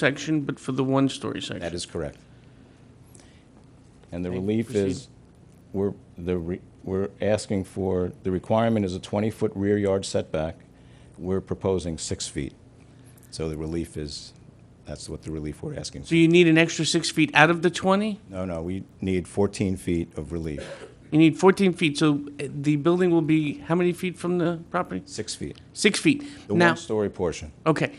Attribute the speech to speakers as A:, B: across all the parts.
A: section, but for the one-story section.
B: That is correct. And the
A: Okay,
B: relief is,
A: proceed.
B: we're, the, re- we're asking for, the requirement is a 20-foot rear yard setback. We're proposing six feet. So the relief is, that's what the relief we're asking.
A: So you need an extra six feet out of the 20?
B: No, no, we need 14 feet of relief,
A: You need 14 feet, so uh, the building will be how many feet from the property?
B: six feet,
A: Six feet.
B: the
A: Now,
B: one-story portion.
A: okay.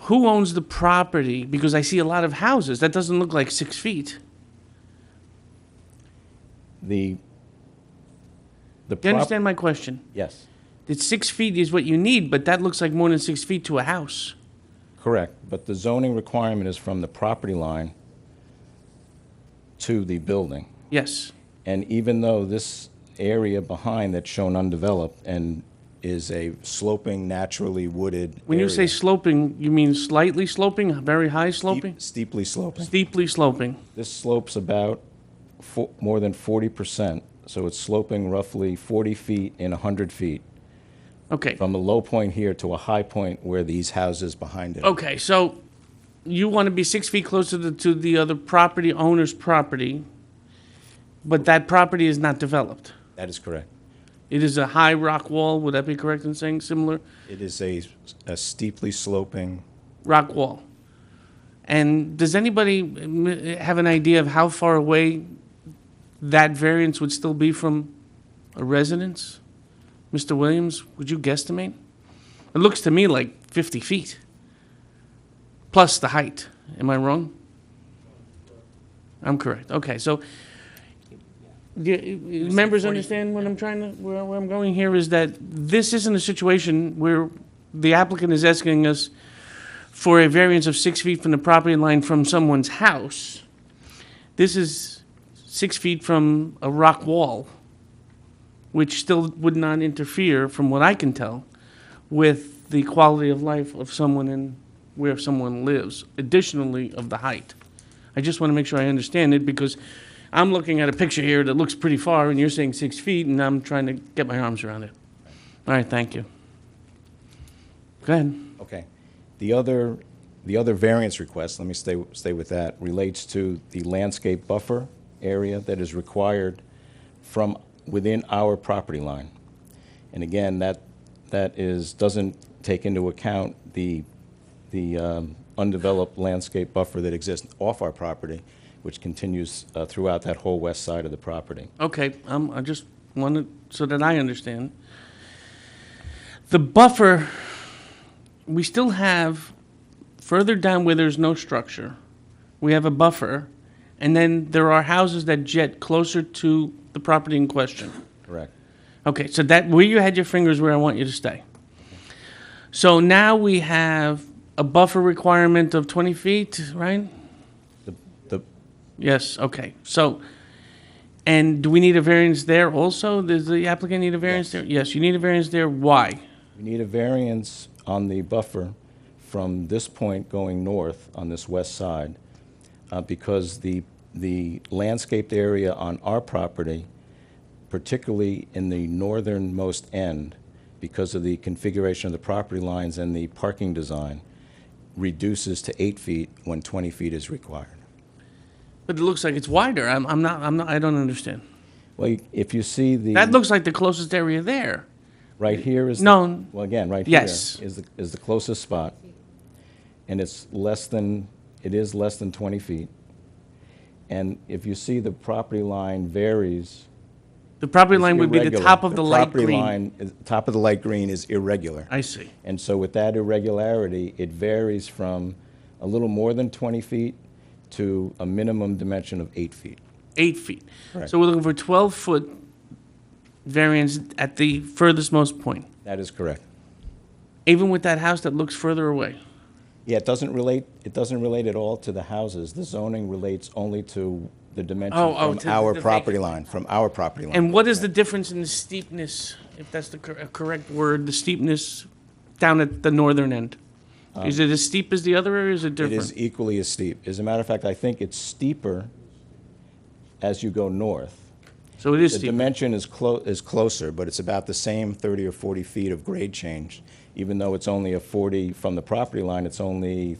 A: Who owns the property? Because I see a lot of houses. That doesn't look like six feet.
B: The,
A: Do
B: the
A: you
B: prop...
A: understand my question?
B: Yes,
A: That six feet is what you need, but that looks like more than six feet to a house.
B: correct, but the zoning requirement is from the property line to the building.
A: Yes.
B: And even though this area behind that's shown undeveloped and is a sloping, naturally wooded
A: When you say
B: area,
A: sloping, you mean slightly sloping, very high
B: steep-
A: sloping?
B: Steeply sloping.
A: Steeply sloping.
B: This slopes about fo- more than 40%, so it's sloping roughly 40 feet in 100 feet,
A: Okay.
B: from a low point here to a high point where these houses behind it. are.
A: Okay, so you want to be six feet closer to, to the other property owner's property, but that property is not developed.
B: That is correct.
A: It is a high rock wall, would that be correct in saying similar?
B: It is a a steeply sloping,
A: Rock wall. And does anybody mm, have an idea of how far away that variance would still be from a residence? Mr. Williams, would you guesstimate? It looks to me like 50 feet, plus the height. Am I wrong? I'm correct. Okay, so do you- members understand what I'm trying to, where where I'm going here is that this isn't a situation where the applicant is asking us for a variance of six feet from the property line from someone's house. This is six feet from a rock wall, which still would not interfere, from what I can tell, with the quality of life of someone and where someone lives, additionally of the height. I just want to make sure I understand it because I'm looking at a picture here that looks pretty far and you're saying six feet and I'm trying to get my arms around it. All right, thank you. Go ahead.
B: Okay. The other, the other variance request, let me stay, stay with that, relates to the landscape buffer area that is required from within our property line. And again, that, that is, doesn't take into account the, the um, undeveloped landscape buffer that exists off our property, which continues uh, throughout that whole west side of the property.
A: Okay, um, I just wanted, so that I understand. The buffer, we still have, further down where there's no structure, we have a buffer, and then there are houses that jet closer to the property in question.
B: Correct.
A: Okay, so that, where you had your fingers where I want you to stay. So now we have a buffer requirement of twenty feet, right?
B: The, the,
A: Yes, okay, so, and do we need a variance there also? Does the applicant need a variance there? Yes, you need a variance there, why?
B: We need a variance on the buffer from this point going north on this west side uh, because the, the landscaped area on our property, particularly in the northernmost end, because of the configuration of the property lines and the parking design, reduces to eight feet when 20 feet is required.
A: But it looks like it's wider, I'm, I'm not, I'm not, I don't understand.
B: Well, you- if you see
A: That
B: the,
A: looks like the closest area there.
B: right here is. the-
A: No.
B: Well, again, right here
A: Yes.
B: is, the is the closest spot. And it's less than, it is less than 20 feet. And if you see, the property line varies.
A: The property line would be the
B: Irregular.
A: top of the light
B: property
A: green.
B: line is- Top of the light green is irregular.
A: I see,
B: And so with that irregularity, it varies from a little more than 20 feet to a minimum dimension of eight feet.
A: eight feet.
B: Correct.
A: So we're looking for twelve-foot variance at the furthest most point,
B: That is correct.
A: even with that house that looks further away.
B: Yeah, it doesn't relate, it doesn't relate at all to the houses. The zoning relates only to the dimension
A: Oh, oh,
B: from
A: to
B: our
A: the
B: property line, from our property line.
A: And what is the difference in the steepness, if that's the cor- uh, correct word, the steepness down at the northern end? Is it as steep as the other, or is it
B: Uh, It is
A: different?
B: equally as steep. As a matter of fact, I think it's steeper as you go north.
A: So it is
B: The
A: steep.
B: dimension is clo, is closer, but it's about the same 30 or 40 feet of grade change, even though it's only a 40, from the property line, it's only